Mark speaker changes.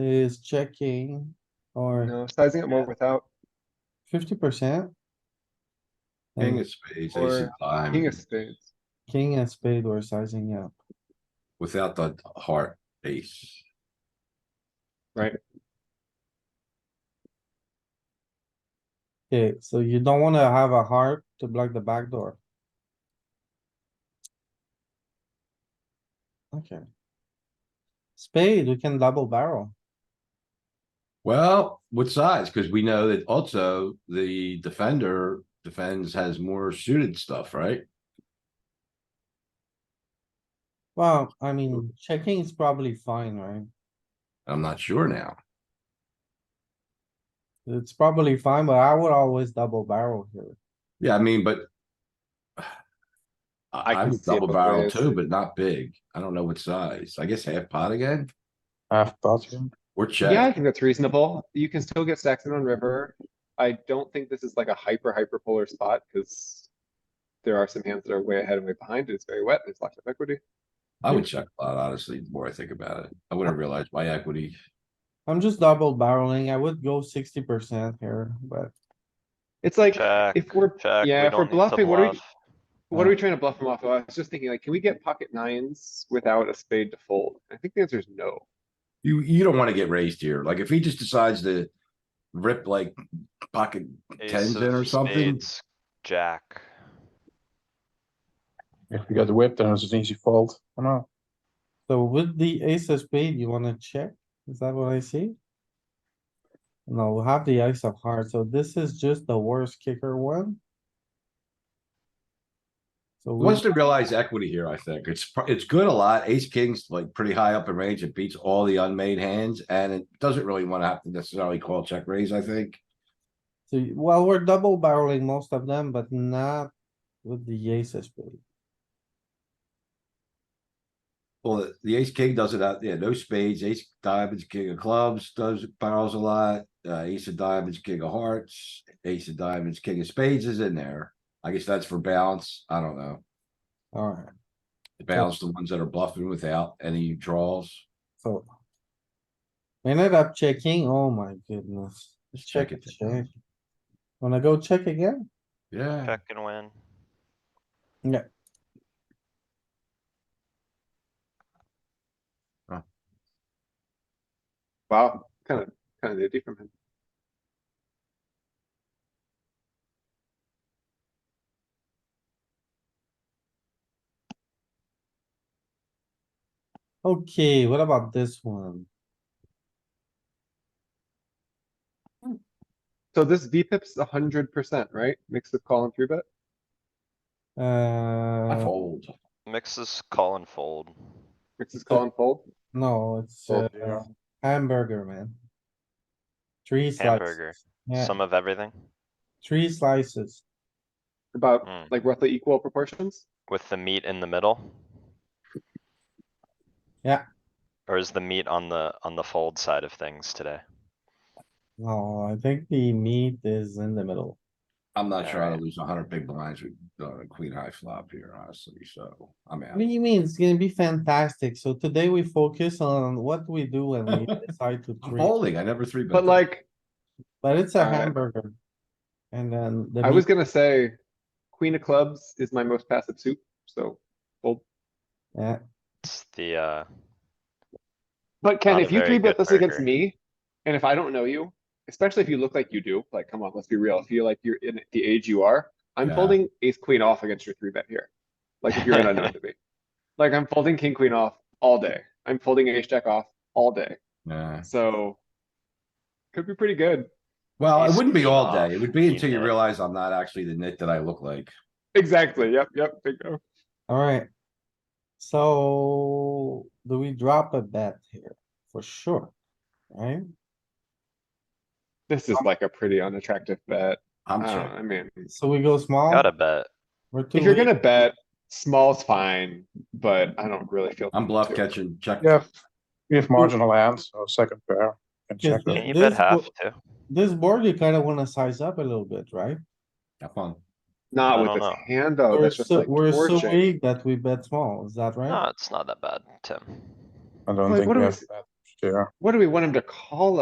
Speaker 1: is checking or
Speaker 2: No, sizing it more without
Speaker 1: fifty percent.
Speaker 3: King
Speaker 1: And
Speaker 3: of spades,
Speaker 2: Um, Or
Speaker 3: ace of
Speaker 2: king of
Speaker 3: diamonds,
Speaker 2: spades.
Speaker 1: king and spade were sizing up.
Speaker 3: without the heart ace.
Speaker 1: Okay, so you don't wanna have a heart to block the back door. Okay. Spade, we can double barrel.
Speaker 3: Well, what size? Cause we know that also the defender defends has more suited stuff, right?
Speaker 1: Well, I mean, checking is probably fine, right?
Speaker 3: I'm not sure now.
Speaker 1: It's probably fine, but I would always double barrel here.
Speaker 3: Yeah, I mean, but. I,
Speaker 2: I
Speaker 3: I
Speaker 2: can
Speaker 3: would
Speaker 2: see it
Speaker 3: double
Speaker 2: both
Speaker 3: barrel
Speaker 2: ways.
Speaker 3: too, but not big. I don't know what size. I guess half pot again
Speaker 4: Half pot.
Speaker 3: or
Speaker 2: Yeah, I
Speaker 3: check.
Speaker 2: think that's reasonable. You can still get stacks in on river. I don't think this is like a hyper, hyper polar spot, cuz there are some hands that are way ahead and way behind, and it's very wet, there's lots of equity.
Speaker 3: I would check a lot, honestly, the more I think about it. I wouldn't realize my equity.
Speaker 1: I'm just double barreling. I would go sixty percent here, but
Speaker 2: It's like,
Speaker 4: Check,
Speaker 2: if we're,
Speaker 4: check.
Speaker 2: yeah,
Speaker 4: we
Speaker 2: if we're
Speaker 4: don't need to
Speaker 2: bluffing, what are we,
Speaker 4: bluff.
Speaker 2: what are we trying to bluff him off of? I was just thinking like, can we get pocket nines without a spade to fold? I think the answer is no.
Speaker 3: You, you don't wanna get raised here. Like if he just decides to rip like pocket tens
Speaker 4: Ace
Speaker 3: in or
Speaker 4: of
Speaker 3: something.
Speaker 4: spades, Jack.
Speaker 5: If we got whipped, then it's an easy fold. I know.
Speaker 1: so with the ace of spade, you wanna check? Is that what I see? No, we have the ace of hearts, so this is just the worst kicker one. So we-
Speaker 3: Once they realize equity here, I think it's, pro- it's good a lot. Ace king's like pretty high up in range. It beats all the unmade hands and it doesn't really wanna have to necessarily call check raise, I think.
Speaker 1: so, you- well, we're double barreling most of them, but not with the ace of spade.
Speaker 3: Well, the- the ace king does it out, yeah, no spades, ace diamonds, king of clubs, does barrels a lot, uh, ace of diamonds, king of hearts, ace of diamonds, king of spades is in there. I guess that's for balance, I don't know,
Speaker 1: Alright,
Speaker 3: balance the ones that are bluffing without any draws,
Speaker 1: so. we Ended up checking, oh my goodness.
Speaker 3: Just check it.
Speaker 1: Check. Wanna go check again?
Speaker 3: yeah.
Speaker 4: Check and win.
Speaker 2: Wow, kinda, kinda nifty from him.
Speaker 1: Okay, what about this one?
Speaker 2: So this VPIP's a hundred percent, right? Mix of call and three bet?
Speaker 3: I
Speaker 1: Uh,
Speaker 3: fold,
Speaker 4: Mixes call and fold.
Speaker 2: Mixes call and fold?
Speaker 1: no, it's
Speaker 5: Oh,
Speaker 1: uh,
Speaker 5: yeah.
Speaker 1: hamburger, man. Three
Speaker 4: Hamburger.
Speaker 1: slices, yeah,
Speaker 4: Some of everything
Speaker 1: three slices.
Speaker 2: About
Speaker 4: Mm.
Speaker 2: like roughly equal proportions?
Speaker 4: with the meat in the middle.
Speaker 1: Yeah.
Speaker 4: Or is the meat on the, on the fold side of things today?
Speaker 1: No, I think the meat is in the middle.
Speaker 3: I'm not trying
Speaker 4: Alright.
Speaker 3: to lose a hundred big blinds with, uh, queen high flop here, honestly, so I'm
Speaker 1: What do
Speaker 3: out.
Speaker 1: you mean? It's gonna be fantastic. So today we focus on what we do when we decide to
Speaker 3: I'm
Speaker 1: treat,
Speaker 3: folding, I never three bet.
Speaker 2: But
Speaker 3: that.
Speaker 2: like,
Speaker 1: but it's a
Speaker 2: Alright.
Speaker 1: hamburger. And then the.
Speaker 2: I was
Speaker 1: meat-
Speaker 2: gonna say, queen of clubs is my most passive suit, so.
Speaker 1: Yeah,
Speaker 4: It's the, uh,
Speaker 2: But Ken,
Speaker 4: Not a
Speaker 2: if you
Speaker 4: very
Speaker 2: three bet
Speaker 4: good
Speaker 2: this against
Speaker 4: burger.
Speaker 2: me, and if I don't know you, especially if you look like you do, like, come on, let's be real, if you're like, you're in the age you are, I'm
Speaker 3: Yeah.
Speaker 2: folding ace queen off against your three bet here. Like, if you're an unknown to me. Like, I'm folding king queen off all day. I'm folding ace jack off all day,
Speaker 3: Yeah,
Speaker 2: so. Could be pretty good.
Speaker 3: well, it
Speaker 4: Ace
Speaker 3: wouldn't be
Speaker 4: queen
Speaker 3: all
Speaker 4: off,
Speaker 3: day, it would be
Speaker 4: you
Speaker 3: until you
Speaker 4: nit.
Speaker 3: realize I'm not actually the nit that I look like.
Speaker 2: Exactly, yep, yep, bingo.
Speaker 1: alright. So do we drop a bet here? For sure, right?
Speaker 2: This is like a pretty unattractive bet.
Speaker 3: I'm
Speaker 2: I don't know,
Speaker 3: checking.
Speaker 2: I mean,
Speaker 1: So we go small.
Speaker 4: gotta bet.
Speaker 1: We're too
Speaker 2: if you're
Speaker 1: weak.
Speaker 2: gonna bet, small's fine, but I don't really feel.
Speaker 3: I'm bluff
Speaker 2: to.
Speaker 3: catching, check.
Speaker 5: Yeah, we have marginal hands, so second pair. Can
Speaker 1: Yes,
Speaker 5: check
Speaker 1: but
Speaker 5: that.
Speaker 4: Can you
Speaker 1: this
Speaker 4: bet half
Speaker 1: wo-
Speaker 4: too?
Speaker 1: This board, you kinda wanna size up a little bit, right?
Speaker 3: Have fun.
Speaker 4: I
Speaker 2: Not with
Speaker 4: don't
Speaker 2: this
Speaker 4: know.
Speaker 2: hand though,
Speaker 1: We're
Speaker 2: Oh, that's just
Speaker 1: so,
Speaker 2: like
Speaker 1: we're so
Speaker 2: torching.
Speaker 1: weak that we bet small, is that right?
Speaker 4: No, it's not that bad, Tim.
Speaker 5: I don't
Speaker 2: Like,
Speaker 5: think
Speaker 2: what
Speaker 5: we
Speaker 2: do
Speaker 5: have
Speaker 2: we-
Speaker 5: that uh, yeah.
Speaker 2: What do we want him to call